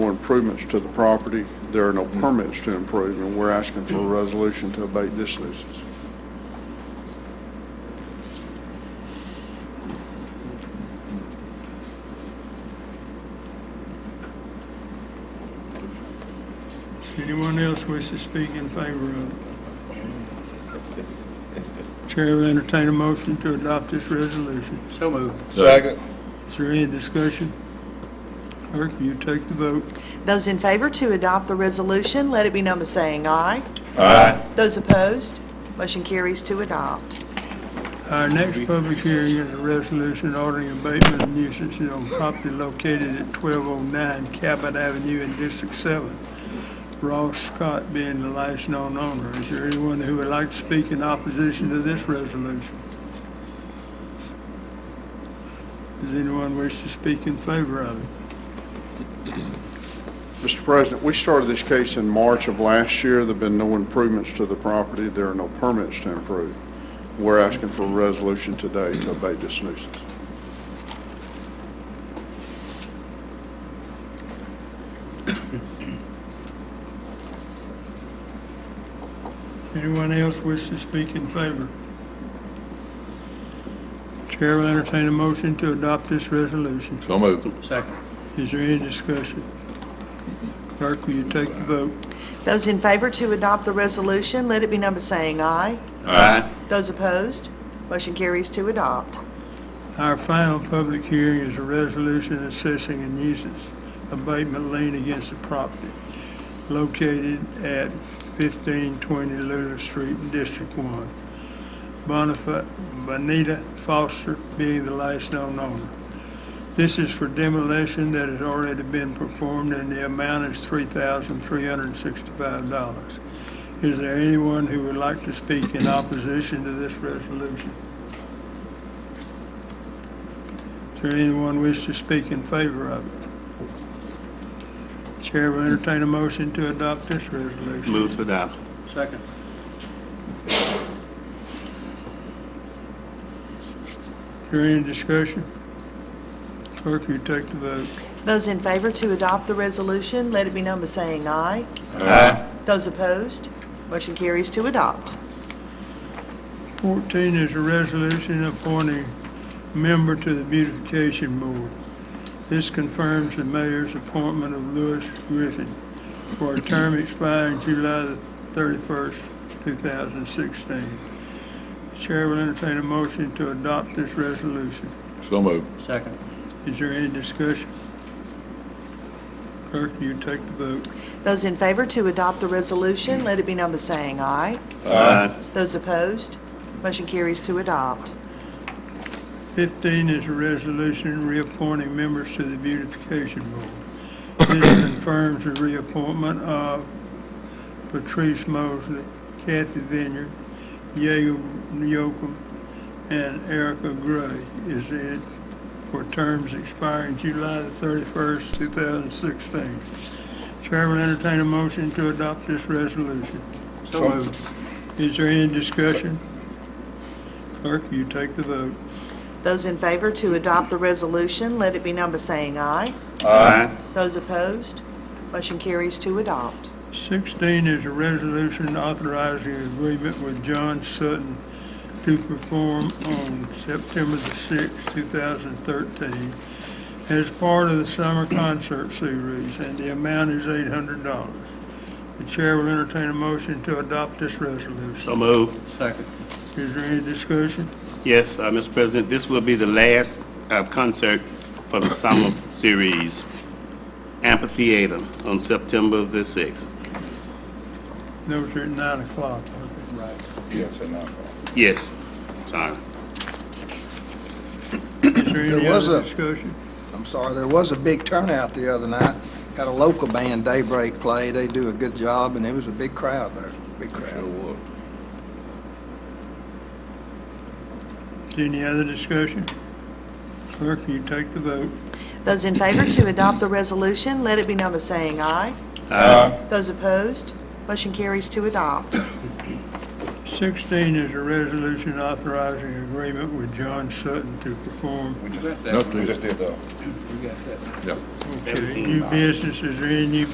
improvements to the property. There are no permits to improve, and we're asking for a resolution to abate this nuisance. Does anyone else wish to speak in favor of it? Chair will entertain a motion to adopt this resolution. So moved. Second. Is there any discussion? Clerk, you take the vote. Those in favor to adopt the resolution, let it be known by saying aye. Aye. Those opposed, motion carries to adopt. Our next public hearing is a resolution ordering abatement of nuisances on property located at 1209 Cabot Avenue in District 7. Ross Scott being the last known owner. Is there anyone who would like to speak in opposition to this resolution? Does anyone wish to speak in favor of it? Mr. President, we started this case in March of last year. There've been no improvements to the property. There are no permits to improve. We're asking for a resolution today to abate this nuisance. Anyone else wish to speak in favor? Chair will entertain a motion to adopt this resolution. So moved. Second. Is there any discussion? Clerk, will you take the vote? Those in favor to adopt the resolution, let it be known by saying aye. Aye. Those opposed, motion carries to adopt. Our final public hearing is a resolution assessing a nuisance abatement lien against the property located at 1520 Lula Street, District 1. Bonifa- Bonita Foster being the last known owner. This is for demolition that has already been performed and the amount is $3,365. Is there anyone who would like to speak in opposition to this resolution? Is there anyone wish to speak in favor of it? Chair will entertain a motion to adopt this resolution. Move to adopt. Second. Is there any discussion? Clerk, will you take the vote? Those in favor to adopt the resolution, let it be known by saying aye. Aye. Those opposed, motion carries to adopt. 14 is a resolution appointing member to the beautification board. This confirms the mayor's appointment of Lewis Griffin for a term expiring July the 31st, 2016. The Chair will entertain a motion to adopt this resolution. So moved. Second. Is there any discussion? Clerk, will you take the vote? Those in favor to adopt the resolution, let it be known by saying aye. Aye. Those opposed, motion carries to adopt. 15 is a resolution reappointing members to the beautification board. This confirms the reappointment of Patrice Mosley, Kathy Vineyard, Yale Nyokum, and Erica Gray is it for terms expiring July the 31st, 2016. Chair will entertain a motion to adopt this resolution. So moved. Is there any discussion? Clerk, you take the vote. Those in favor to adopt the resolution, let it be known by saying aye. Aye. Those opposed, motion carries to adopt. 16 is a resolution authorizing agreement with John Sutton to perform on September the 6th, 2013, as part of the summer concert series, and the amount is $800. The chair will entertain a motion to adopt this resolution. So moved. Second. Is there any discussion? Yes, uh, Mr. President, this will be the last uh, concert for the summer series, Amphitheater, on September the 6th. Those are at 9 o'clock. Yes, enough. Yes, sorry. Is there any There was other a- discussion? I'm sorry, there was a big turnout the other night. Had a local band, Daybreak, play. They do a good job, and it was a big crowd there, big crowd. Any other discussion? Clerk, will you take the vote? Those in favor to adopt the resolution, let it be known by saying aye. Aye. Those opposed, motion carries to adopt. 16 is a resolution authorizing agreement with John Sutton to perform, We got that. Nothing. Just did though. We got that. Yeah. Okay, Seventeen new dollars. businesses or any new